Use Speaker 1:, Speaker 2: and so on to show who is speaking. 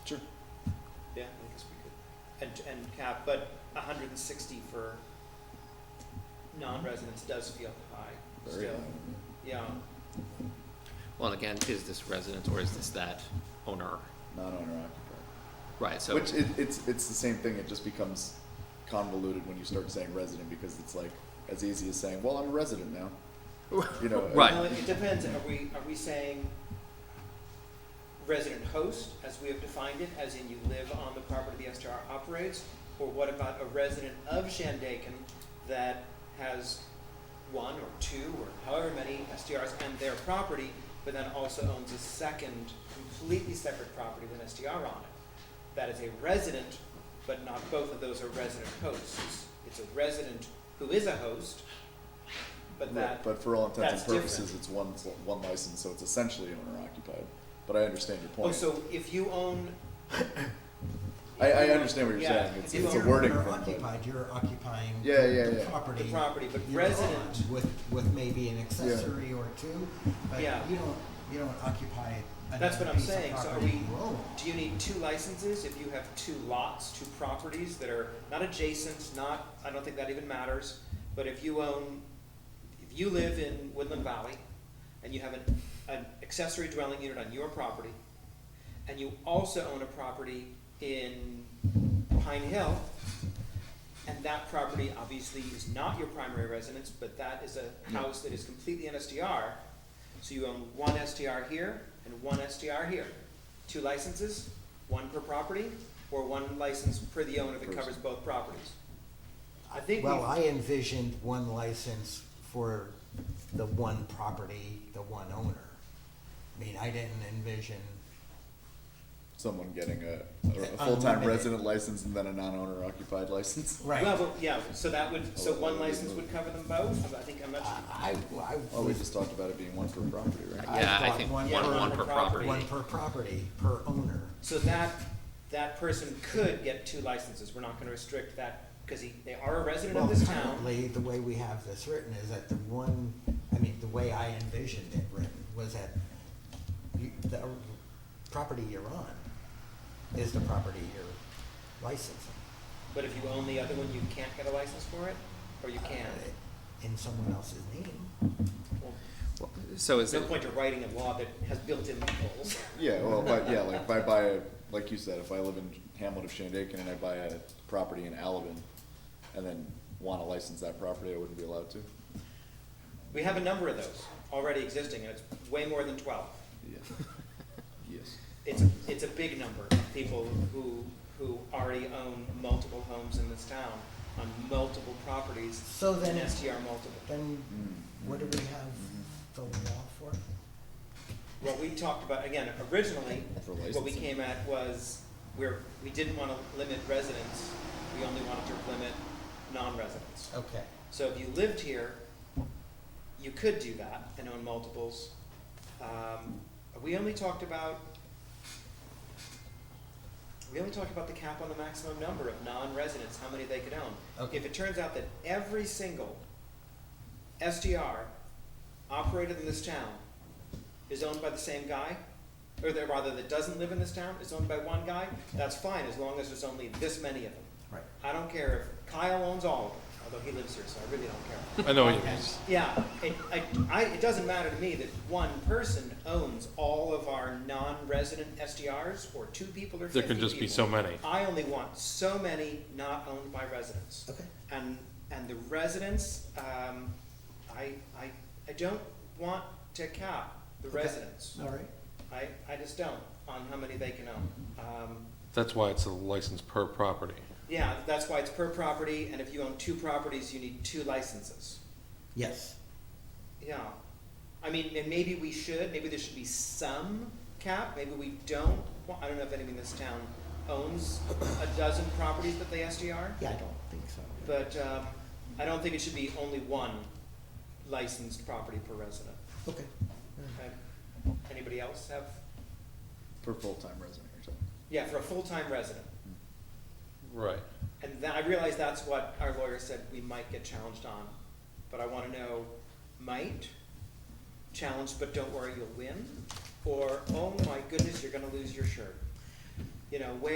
Speaker 1: Yeah, I guess we could, and, and cap, but hundred and sixty for non-residents does feel high
Speaker 2: Very
Speaker 1: still, yeah.
Speaker 3: Well, and again, is this resident or is this that owner?
Speaker 2: non-owner
Speaker 3: Right,
Speaker 2: occupied.
Speaker 3: so,
Speaker 2: Which it, it's, it's the same thing, it just becomes convoluted when you start saying resident because it's like as easy as saying, well, I'm a resident now. You know,
Speaker 3: Right.
Speaker 1: Well, it depends, are we, are we saying resident host, as we have defined it, as in you live on the property the STR operates? Or what about a resident of Shandaken that has one or two or however many STRs and their property, but then also owns a second completely separate property with an STR on it? That is a resident, but not both of those are resident hosts. It's a resident who is a host, but that
Speaker 2: Right, But for all intents
Speaker 1: that's
Speaker 2: and purposes, it's one, one license, so it's essentially owner occupied, but I understand your
Speaker 1: Oh,
Speaker 2: point.
Speaker 1: so if you own.
Speaker 2: I, I understand what you're
Speaker 1: Yeah,
Speaker 2: saying, it's,
Speaker 1: if
Speaker 2: it's a
Speaker 1: you're
Speaker 2: wording
Speaker 4: You're
Speaker 2: thing, but,
Speaker 4: occupied, you're occupying.
Speaker 2: Yeah, yeah,
Speaker 4: the
Speaker 2: yeah.
Speaker 4: Property.
Speaker 1: The property, but
Speaker 4: you're
Speaker 1: resident-
Speaker 4: on With, with maybe an accessory or two, but you
Speaker 1: Yeah.
Speaker 4: don't, you don't occupy
Speaker 1: That's what
Speaker 4: another
Speaker 1: I'm
Speaker 4: piece
Speaker 1: saying,
Speaker 4: of
Speaker 1: so are
Speaker 4: property
Speaker 1: we-
Speaker 4: you own.
Speaker 1: Do you need two licenses if you have two lots, two properties that are not adjacent, not, I don't think that even matters. But if you own, if you live in Woodland Valley and you have an, an accessory dwelling unit on your property and you also own a property in Pine Hill and that property obviously is not your primary residence, but that is a house that is completely an SDR. So you own one SDR here and one SDR here. Two licenses, one per property, or one license per the owner that covers both properties? I think
Speaker 4: Well, I
Speaker 1: we,
Speaker 4: envisioned one license for the one property, the one owner. I mean, I didn't envision,
Speaker 2: someone getting a, a- a
Speaker 4: An
Speaker 2: full-time
Speaker 4: unlimited.
Speaker 2: resident license and then a non-owner occupied license.
Speaker 4: right.
Speaker 1: well, but, yeah, so that would, so one
Speaker 2: Oh,
Speaker 1: license would cover them both? I think, I'm not sure.
Speaker 4: I, I.
Speaker 2: Oh, we just talked about it being one per property, right?
Speaker 4: I
Speaker 3: yeah, I
Speaker 4: thought
Speaker 3: think
Speaker 4: one
Speaker 3: one,
Speaker 1: per-
Speaker 3: one per property.
Speaker 4: One per property, per owner.
Speaker 1: So that, that person could get two licenses, we're not gonna restrict that, because he, they are a resident
Speaker 4: Well,
Speaker 1: of this town.
Speaker 4: currently, the way we have this written is that the one, I mean, the way I envisioned it written was that you, the property you're on is the property you're licensing.
Speaker 1: But if you own the other one, you can't get a license for it, or you can?
Speaker 4: Uh, In someone else's name.
Speaker 1: Well,
Speaker 3: So is
Speaker 1: There's no
Speaker 3: it,
Speaker 1: point to writing a law that has built-in loopholes.
Speaker 2: Yeah, well, but, yeah, like, if I buy a, like you said, if I live in Hamlet of Shandaken and I buy a property in Alabin and then wanna license that property, I wouldn't be allowed to?
Speaker 1: We have a number of those already existing, and it's way more than twelve.
Speaker 2: Yeah. Yes.
Speaker 1: It's, a- it's a big number of people who, who already own multiple homes in this town on multiple properties.
Speaker 4: So then-
Speaker 1: And STR multiple.
Speaker 4: Then
Speaker 2: Mm.
Speaker 4: what do we have the law for?
Speaker 1: What we talked about, again, originally,
Speaker 2: For
Speaker 1: what we
Speaker 2: licensing.
Speaker 1: came at was, we're, we didn't wanna limit residents, we only wanted to limit non-residents.
Speaker 4: Okay.
Speaker 1: So if you lived here, you could do that and own multiples. Um, we only talked about, we only talked about the cap on the maximum number of non-residents, how many they could own.
Speaker 4: Okay.
Speaker 1: If it turns out that every single SDR operated in this town is owned by the same guy, or that rather that doesn't live in this town, is owned by one guy, that's fine, as long as there's only this many of them.
Speaker 4: Right.
Speaker 1: I don't care if Kyle owns all of them, although he lives here, so I really don't care.
Speaker 5: I know what you mean.
Speaker 1: And, yeah, it, I, I, it doesn't matter to me that one person owns all of our non-resident SDRs, or two people or fifty
Speaker 5: There
Speaker 1: people.
Speaker 5: can just be so many.
Speaker 1: I only want so many not owned by residents.
Speaker 4: Okay.
Speaker 1: And, and the residents, um, I, I, I don't want to cap the
Speaker 4: Okay.
Speaker 1: residents.
Speaker 4: All right.
Speaker 1: I, I just don't, on how many they can own. Um,
Speaker 5: That's why it's a license per property.
Speaker 1: yeah, that's why it's per property, and if you own two properties, you need two licenses.
Speaker 4: Yes.
Speaker 1: Yeah. I mean, and maybe we should, maybe there should be some cap, maybe we don't. Well, I don't know if anyone in this town owns a dozen properties that they SDR,
Speaker 4: Yeah, I don't think so.
Speaker 1: but, um, I don't think it should be only one licensed property per resident.
Speaker 4: Okay.
Speaker 1: Okay? Anybody else have,
Speaker 2: Per full-time resident or something.
Speaker 1: yeah, for a full-time resident.
Speaker 5: Right.
Speaker 1: And then I realize that's what our lawyer said we might get challenged on, but I wanna know, might, challenged, but don't worry, you'll win, or, oh my goodness, you're gonna lose your shirt. You know, where